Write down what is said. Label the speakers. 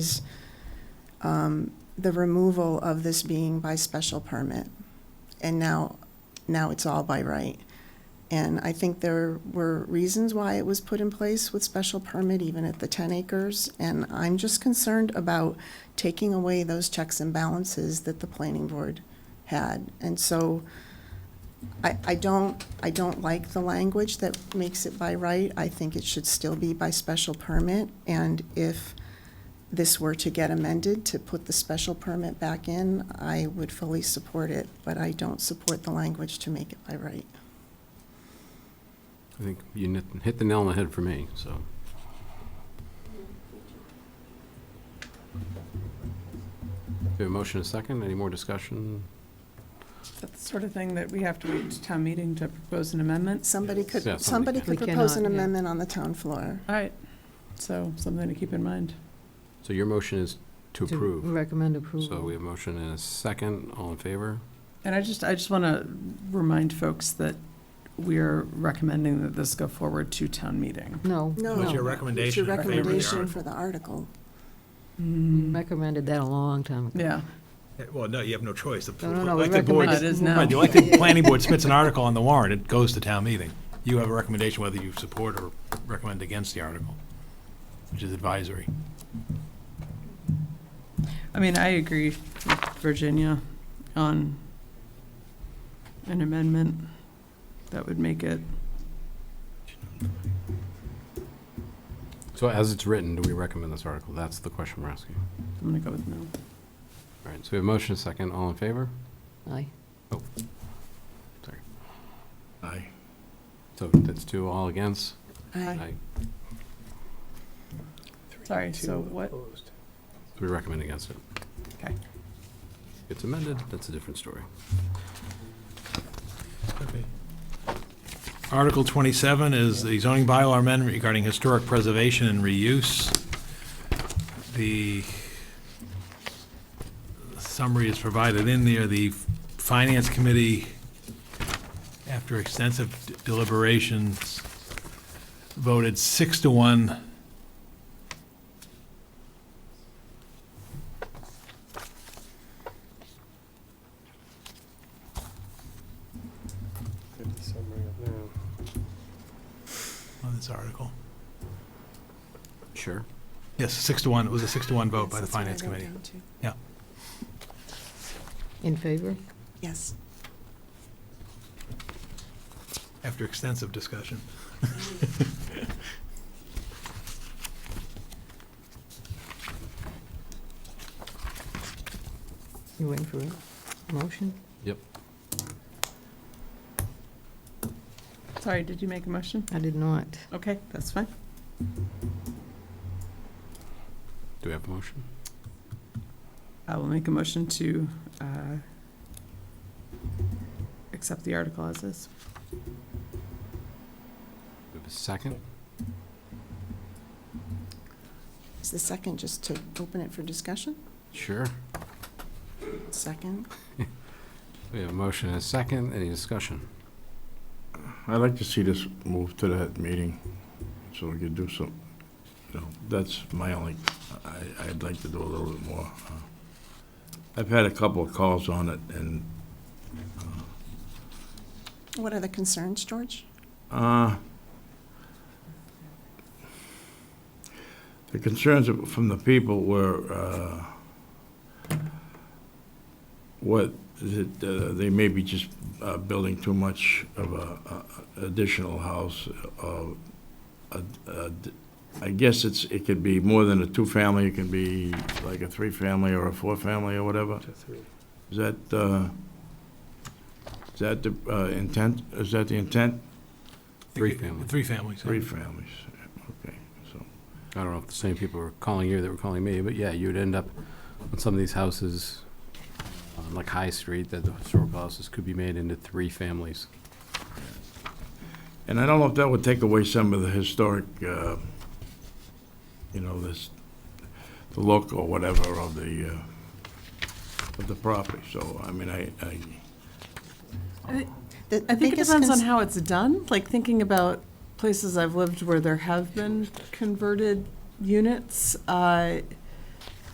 Speaker 1: is um, the removal of this being by special permit. And now, now it's all by right. And I think there were reasons why it was put in place with special permit, even at the 10 acres. And I'm just concerned about taking away those checks and balances that the planning board had. And so I, I don't, I don't like the language that makes it by right. I think it should still be by special permit. And if this were to get amended to put the special permit back in, I would fully support it, but I don't support the language to make it by right.
Speaker 2: I think you nit- hit the nail on the head for me, so. Do we have a motion and a second? Any more discussion?
Speaker 3: That's the sort of thing that we have to wait to town meeting to propose an amendment.
Speaker 1: Somebody
Speaker 2: Yeah,
Speaker 1: could,
Speaker 2: somebody
Speaker 1: somebody
Speaker 2: can.
Speaker 1: could
Speaker 3: We
Speaker 1: propose an
Speaker 3: cannot, yeah.
Speaker 1: amendment on the town floor.
Speaker 3: All right, so something to keep in mind.
Speaker 2: So your motion is to approve.
Speaker 4: Recommend
Speaker 2: So we
Speaker 4: approval.
Speaker 2: have motion and a second. All in favor?
Speaker 3: And I just, I just want to remind folks that we are recommending that this go forward to town meeting.
Speaker 4: No,
Speaker 1: No.
Speaker 3: What's your
Speaker 5: recommendation
Speaker 1: It's your
Speaker 3: in favor of the
Speaker 1: recommendation
Speaker 5: article?
Speaker 1: for the article.
Speaker 3: Mm-hmm.
Speaker 4: recommended that a long time ago.
Speaker 3: Yeah,
Speaker 5: Yeah, Well, no, you have no choice. The
Speaker 4: No, no, no, we
Speaker 5: elected board-
Speaker 3: recommend- It is now.
Speaker 5: Right, the elected planning board submits an article on the warrant, it goes to town meeting. You have a recommendation whether you support or recommend against the article, which is advisory.
Speaker 3: I mean, I agree with Virginia on an amendment that would make it,
Speaker 2: So as it's written, do we recommend this article? That's the question we're asking.
Speaker 3: I'm going to go with no.
Speaker 2: All right, so we have motion and a second. All in favor?
Speaker 4: Aye.
Speaker 5: Aye.
Speaker 2: So that's two, all against?
Speaker 1: I-
Speaker 2: Aye.
Speaker 3: Sorry, so what,
Speaker 2: We recommend against it.
Speaker 3: Okay.
Speaker 2: It's amended, that's a different story.
Speaker 5: Article 27 is the zoning bylaw amendment regarding historic preservation and reuse. The summary is provided in there. The Finance Committee, after extensive deliberations, voted six to one on this article.
Speaker 2: Sure.
Speaker 5: Yes, six to one. It was a six to one vote by the
Speaker 1: That's what I
Speaker 5: Finance
Speaker 1: wrote
Speaker 5: Committee.
Speaker 1: down too.
Speaker 4: In favor?
Speaker 1: Yes.
Speaker 5: after extensive discussion.
Speaker 4: You waiting for it? Motion?
Speaker 3: sorry, did you make a motion?
Speaker 4: I did not.
Speaker 3: Okay, that's fine.
Speaker 2: Do we have a motion?
Speaker 3: I will make a motion to uh, accept the article as is.
Speaker 2: Do we have a second?
Speaker 1: Is the second just to open it for discussion?
Speaker 2: Sure.
Speaker 1: Second?
Speaker 2: We have a motion and a second. Any discussion?
Speaker 6: I'd like to see this move to that meeting, so we could do some, you know, that's my only, I, I'd like to do a little bit more. uh, I've had a couple of calls on it, and,
Speaker 1: What are the concerns, George?
Speaker 6: uh, the concerns of- from the people were, uh, what, is it, uh, they may be just uh, building too much of a a- additional house, uh, a- a d- I guess it's, it could be more than a two-family, it can be like a three-family or a four-family or whatever. Is that, uh, is that the uh, intent, is that the intent?
Speaker 2: Three family.
Speaker 5: Three families.
Speaker 6: Three families, okay, so.
Speaker 2: I don't know if the same people were calling you that were calling me, but yeah, you'd end up on some of these houses on like High Street, that the historical houses could be made into three families.
Speaker 6: And I don't know if that would take away some of the historic, uh, you know, this, the look or whatever of the, uh, of the property, so, I mean, I, I,
Speaker 1: The
Speaker 3: I think it
Speaker 1: biggest
Speaker 3: depends on
Speaker 1: cons-
Speaker 3: how it's done, like thinking about places I've lived where there have been converted units. uh,